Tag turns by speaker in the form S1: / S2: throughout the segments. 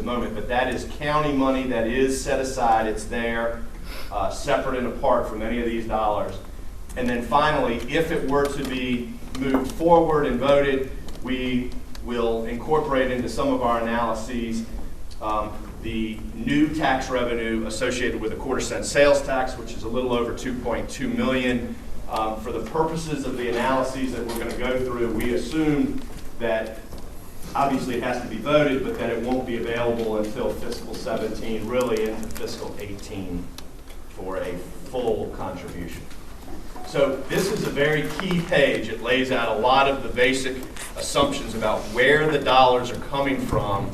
S1: the moment, but that is county money that is set aside, it's there, uh, separate and apart from any of these dollars. And then finally, if it were to be moved forward and voted, we will incorporate into some of our analyses um, the new tax revenue associated with a quarter cent sales tax, which is a little over 2.2 million. Um, For the purposes of the analyses that we're going to go through, we assume that obviously it has to be voted, but that it won't be available until fiscal 17, really into fiscal 18 for a full contribution. So this is a very key page. It lays out a lot of the basic assumptions about where the dollars are coming from,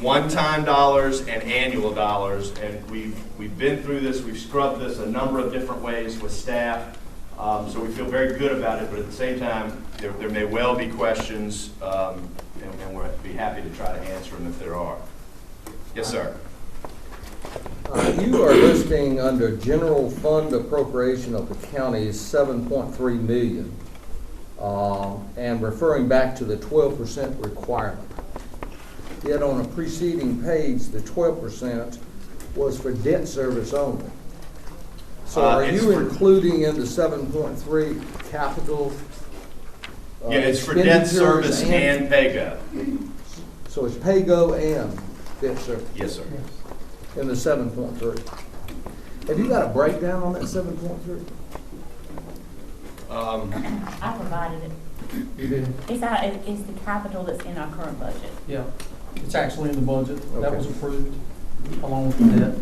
S1: one-time dollars and annual dollars. And we've, we've been through this, we've scrubbed this a number of different ways with staff. Um, So we feel very good about it, but at the same time, there, there may well be questions, um, and and we'll be happy to try to answer them if there are. Yes, sir.
S2: Uh, You are listing under general fund appropriation of the county's seven point three million, um, and referring back to the twelve percent requirement. Yet on a preceding page, the twelve percent was for debt service only. So
S1: Uh,
S2: are
S1: it's
S2: you
S1: for-
S2: including in the seven point three capital? uh,
S1: Yeah, it's for debt
S2: expenditures
S1: service and paygo.
S2: So it's pay-go and debt service
S1: Yes, sir.
S2: in the seven point three. Have you got a breakdown on that seven point three?
S1: Um,
S3: I provided it.
S4: You did,
S3: It's our, it- it's the capital that's in our current budget.
S4: yeah. It's actually in the budget. That
S2: Okay.
S4: was approved along with the debt.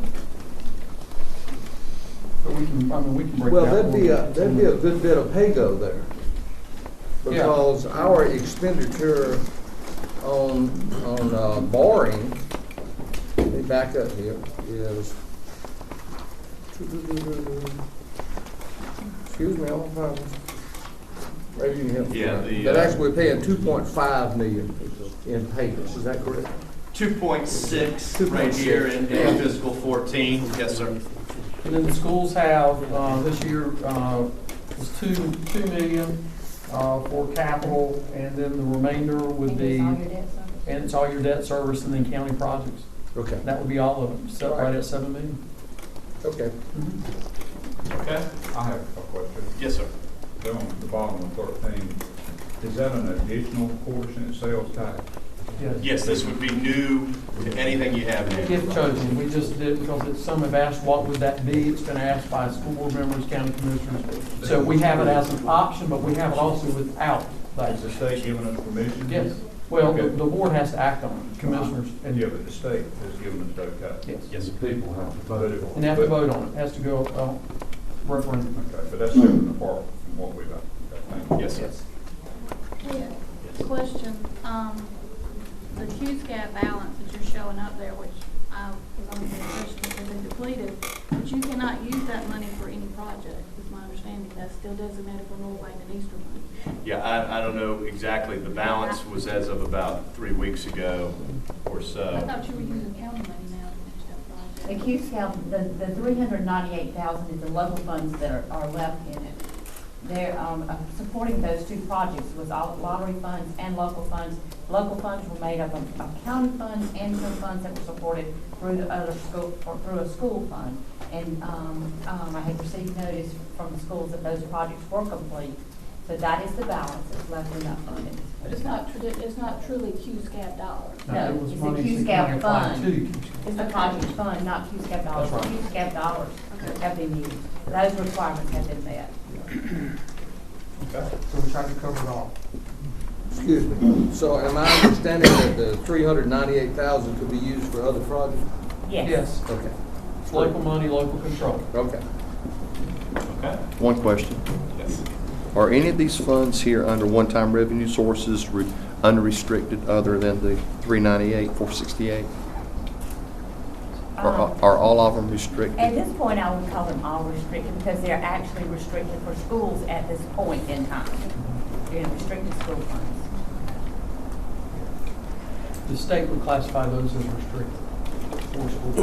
S4: But we can, I mean, we can break that.
S2: Well, that'd
S4: one.
S2: be a, that'd be a good bit of pay-go there. Because our expenditure on, on uh, borrowing, let me back up here, is. Excuse me, I'm on fire. Maybe you can help me.
S1: Yeah, the,
S2: But
S1: uh,
S2: actually, we're paying two point five million in payments, is that correct?
S1: 2.6 right here in in fiscal 14. Yes, sir.
S4: And then the schools have, uh, this year, uh, was two, two million, uh, for capital, and then the remainder would
S3: And
S4: be,
S3: it's all
S4: and it's all
S3: your debt service.
S4: your debt service and then county projects.
S2: Okay,
S4: That would be all of them, set right at seven million.
S2: okay.
S4: Mm-hmm.
S1: Okay.
S5: I have a question.
S1: Yes, sir.
S5: Down at the bottom of thirteen, is that an additional portion of sales tax?
S4: Yes.
S1: Yes, this would be new to anything you have here.
S4: If chosen, we just did, because it's, some have asked, what would that be? It's been asked by school board members, county commissioners. So we have it as an option, but we have it also without that.
S5: Is the state giving us permission?
S4: Yes, well, the, the board has to act on it, commissioners,
S5: And
S4: and,
S5: yeah, but the state has given us that tax.
S4: yes.
S1: Yes, sir.
S5: But it-
S4: And they have to vote on it, has to go, uh, referendum.
S5: Okay, but that's separate and apart from what we've got. Okay, thank you.
S1: Yes, sir.
S6: Yeah, question, um, the Q's gap balance that you're showing up there, which I was under the impression had been depleted, but you cannot use that money for any project, is my understanding, that's still designated for North Wayne and Eastern Wayne.
S1: Yeah, I, I don't know exactly. The balance was as of about three weeks ago or
S6: I
S1: so.
S6: thought you were using county money now to
S3: The
S6: finish that project.
S3: Q scale, the, the three hundred ninety-eight thousand is the local funds that are, are left in it. They're, um, uh, supporting those two projects was all lottery funds and local funds. Local funds were made up of, of county funds and some funds that were supported through the other school, or through a school fund. And, um, um, I had received notice from the schools that those projects were complete. So that is the balance that's left in that fund at this
S6: But it's not tradi- it's not truly Q's gap dollars.
S4: Now, it was
S3: it's a
S4: money
S3: Q's
S4: that
S3: Gap
S4: county applied
S3: fund.
S4: to Q's Gap.
S3: It's a project fund, not Q-SCAP dollars.
S4: That's right.
S3: Q-SCAP dollars have been used. Those requirements have been met.
S4: So we tried to cover it all.
S2: Excuse me. So am I understanding that the three hundred ninety-eight thousand could be used for other projects?
S4: Yes,
S2: Okay,
S4: it's local money, local control.
S2: okay.
S1: Okay?
S7: One question.
S1: Yes.
S7: Are any of these funds here under one-time revenue sources re- unrestricted other than the 398, 468? Are
S3: Um,
S7: are all of them
S3: At
S7: restricted?
S3: this point, I would call them all restricted because they're actually restricted for schools at this point in time. They're in restricted school funds.
S4: The state would classify those as restricted for school.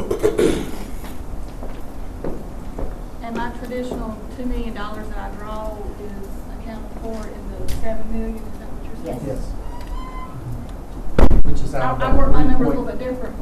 S6: And my traditional two million dollars that I draw is accounted for in the seven million, is that what you're saying?
S3: Yes.
S4: Which is
S6: I,
S4: out of.
S6: I
S4: that
S6: work my numbers a
S4: 3.8.
S6: little bit different